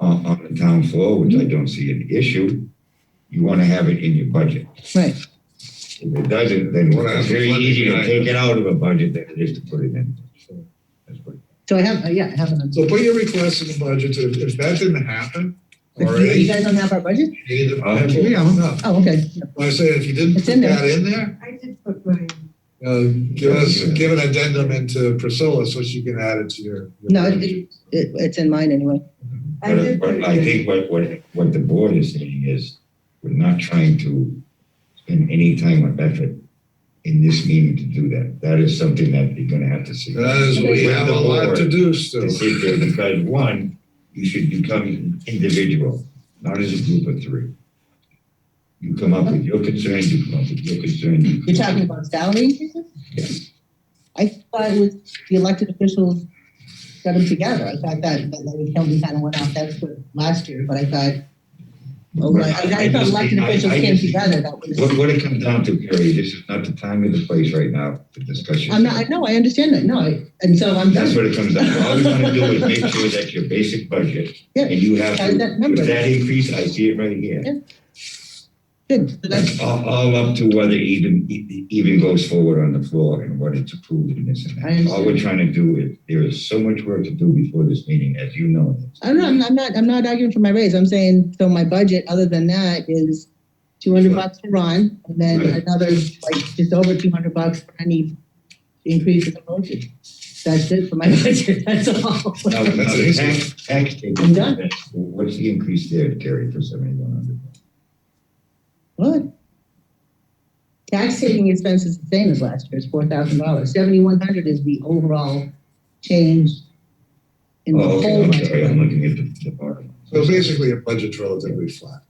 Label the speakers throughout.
Speaker 1: on, on the town floor, which I don't see an issue, you want to have it in your budget.
Speaker 2: Right.
Speaker 1: If it doesn't, then
Speaker 3: Well,
Speaker 1: it's
Speaker 3: that's
Speaker 1: very
Speaker 3: one
Speaker 1: easy to
Speaker 3: thing I-
Speaker 1: take it out of a budget than it is to put it in. So, that's what-
Speaker 2: So I have, uh, yeah, I have an.
Speaker 3: So put your request in the budget, if, if that didn't happen
Speaker 2: You
Speaker 3: already.
Speaker 2: guys don't have our budget?
Speaker 3: neither-
Speaker 1: I'll have
Speaker 3: Yeah, I'm not.
Speaker 2: Oh, okay.
Speaker 3: When I say if you didn't
Speaker 2: It's
Speaker 3: put
Speaker 2: in there.
Speaker 3: that in there,
Speaker 4: I did put mine.
Speaker 3: uh, give us, give an addendum into Priscilla so she can add it to your. your
Speaker 2: No, it-
Speaker 3: budget.
Speaker 2: It, it's in mine anyway.
Speaker 4: I
Speaker 1: But,
Speaker 4: did put
Speaker 1: but I
Speaker 4: mine.
Speaker 1: think what, what, what the board is saying is, we're not trying to spend any time or effort in this meeting to do that. That is something that you're gonna have to see.
Speaker 3: That is, we
Speaker 1: With
Speaker 3: have a
Speaker 1: the
Speaker 3: lot to
Speaker 1: board
Speaker 3: do still.
Speaker 1: To sit there, because one, you should become individual, not as a group of three. You come up with your concerns, you come up with your concerns. you come
Speaker 2: You're
Speaker 1: up
Speaker 2: talking about salary increases? I thought it was the elected officials got them together. I thought that, that Larry Kilby kind of went off, that's what, last year, but I thought, oh,
Speaker 1: with-
Speaker 2: like, I I thought elected
Speaker 1: I- I
Speaker 2: officials came
Speaker 1: just-
Speaker 2: together, that was.
Speaker 1: What, what it comes down to, Carrie, this is not the time or the place right now for discussion.
Speaker 2: I'm not, I know, I understand that, no, I- and so I'm.
Speaker 1: That's what it comes down to. All we want to do is make sure that your basic budget,
Speaker 2: Yeah.
Speaker 1: and you have
Speaker 2: Carry that
Speaker 1: to,
Speaker 2: number.
Speaker 1: with that increase, I see it right here.
Speaker 2: Yeah. Good, so that's,
Speaker 1: That's all, all up to whether even, e- even goes forward on the floor and what it's approved and this and
Speaker 2: I
Speaker 1: that.
Speaker 2: understand.
Speaker 1: All we're trying to do is, there is so much work to do before this meeting, as you know.
Speaker 2: I'm not, I'm not, I'm not arguing for my raise, I'm saying, so my budget, other than that, is two hundred bucks for Ron, and then
Speaker 1: Right.
Speaker 2: another, like, just over two hundred bucks for any increase in the motion. That's it for my budget, that's all.
Speaker 1: Now, now
Speaker 3: That's
Speaker 1: the
Speaker 3: easy.
Speaker 1: tax, tax
Speaker 2: I'm done.
Speaker 1: taken, what's the increase there, Terry, for seventy-one hundred?
Speaker 2: What? Tax taking expense is the same as last year, it's four thousand dollars, seventy-one hundred is the overall change in the
Speaker 1: Oh, okay,
Speaker 2: whole
Speaker 1: I'm sorry, I'm
Speaker 2: budget.
Speaker 1: looking at the, the bottom.
Speaker 3: So basically, your budget's relatively flat.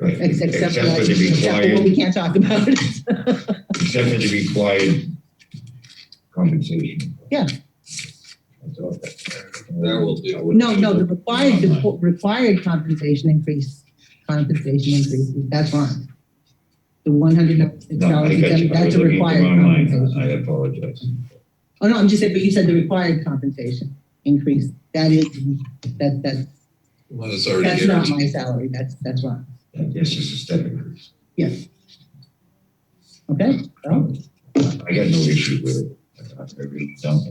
Speaker 1: Right,
Speaker 2: Ex- Except for,
Speaker 1: Except for the
Speaker 2: except for
Speaker 1: required
Speaker 2: what we can't talk about.
Speaker 1: except for the required compensation.
Speaker 2: Yeah.
Speaker 1: That's all that-
Speaker 3: That will
Speaker 1: I
Speaker 3: do.
Speaker 1: would-
Speaker 2: No, no, the required, the required compensation increase, compensation increase, that's wrong. The one hundred
Speaker 1: No, I
Speaker 2: dollars,
Speaker 1: got you. I
Speaker 2: that's
Speaker 1: was
Speaker 2: a
Speaker 1: looking at the
Speaker 2: required
Speaker 1: wrong line.
Speaker 2: compensation.
Speaker 1: I apologize.
Speaker 2: Oh, no, I'm just saying, but you said the required compensation increase, that is, that, that's
Speaker 3: One that's already
Speaker 2: That's not my salary, that's, that's wrong,
Speaker 1: That- That's just a step increase.
Speaker 2: okay?
Speaker 1: I got no issue with it. I really don't.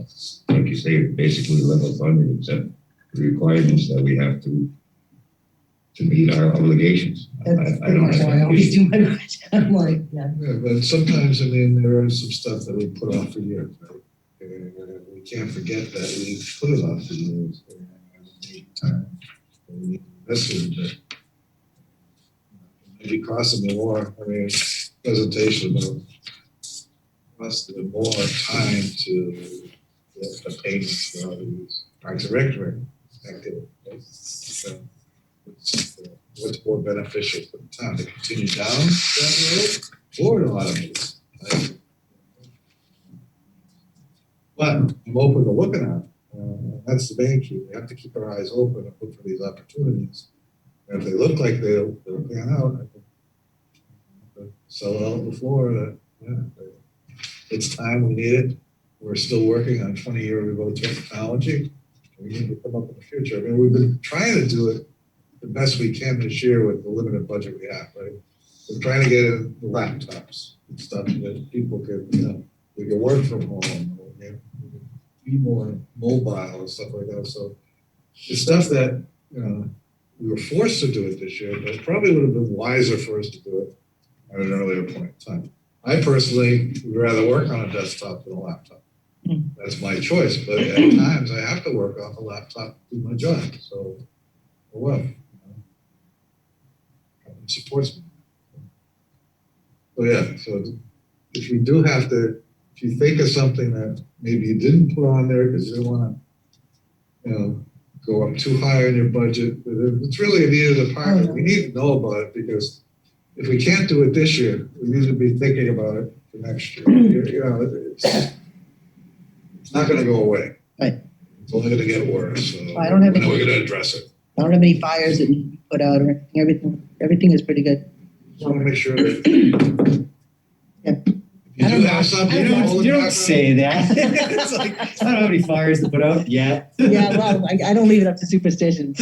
Speaker 1: Like you say, basically level funded except the requirements that we have to to meet our obligations. I- I-
Speaker 2: That's
Speaker 1: I
Speaker 2: pretty
Speaker 1: don't
Speaker 2: much
Speaker 1: have
Speaker 2: why I
Speaker 1: an
Speaker 2: always
Speaker 1: issue.
Speaker 2: do my budget, I'm like, yeah.
Speaker 3: Yeah, but sometimes, I mean, there is some stuff that we put off for years, right? And uh, we can't forget that we put it off for years. and we need time, and we need to invest in it, but uh, Maybe costing me more, I mean, presentation about costing me more time to get the payments for all these parks and rec activities. So, it's, uh, What's more beneficial for the town, to continue down that road forward a lot of these. like- But I'm open to looking at, it. uh, that's the main key, we have to keep our eyes open and look for these opportunities. And if they look like they, they're pan out, I think. uh, Sell it out before, that, yeah. they- It's time, we need it, we're still working on twenty-year remote technology. We need to come up with the future, I mean, we've been trying to do it the best we can this year with the limited budget we have, right? We're trying to get the laptops and stuff that people could, you know, we could work from home, or we could be more mobile and stuff like that. So it's stuff that, you know, we were forced to do it this year, but it probably would have been wiser for us to do it at an earlier point in time. I personally would rather work on a desktop than a laptop. That's my choice, but at times I have to work off a laptop to do my job, so, oh well. you know. It supports me. So yeah, so if you do have to, if you think of something that maybe you didn't put on there because you didn't want to, you know, go up too high on your budget, but if it's really a needed department, we need to know about it because if we can't do it this year, we need to be thinking about it for next year. You- You know, it's, it's not going to go away.
Speaker 2: Right.
Speaker 3: It's only going to get worse, so.
Speaker 2: I don't have any-
Speaker 3: We're going to address it.
Speaker 2: I don't have any fires that need to be put out or anything, everything, everything is pretty good.
Speaker 3: Just want to make sure that.
Speaker 2: Yeah.
Speaker 3: If
Speaker 2: I
Speaker 3: you
Speaker 2: don't
Speaker 3: do
Speaker 2: know.
Speaker 3: have something.
Speaker 2: I
Speaker 5: You
Speaker 3: hold it
Speaker 5: don't, you
Speaker 3: back
Speaker 5: don't
Speaker 3: up.
Speaker 5: say that. It's like, I don't have any fires to put out yet.
Speaker 2: Yeah, well, I, I don't leave it up to superstitions.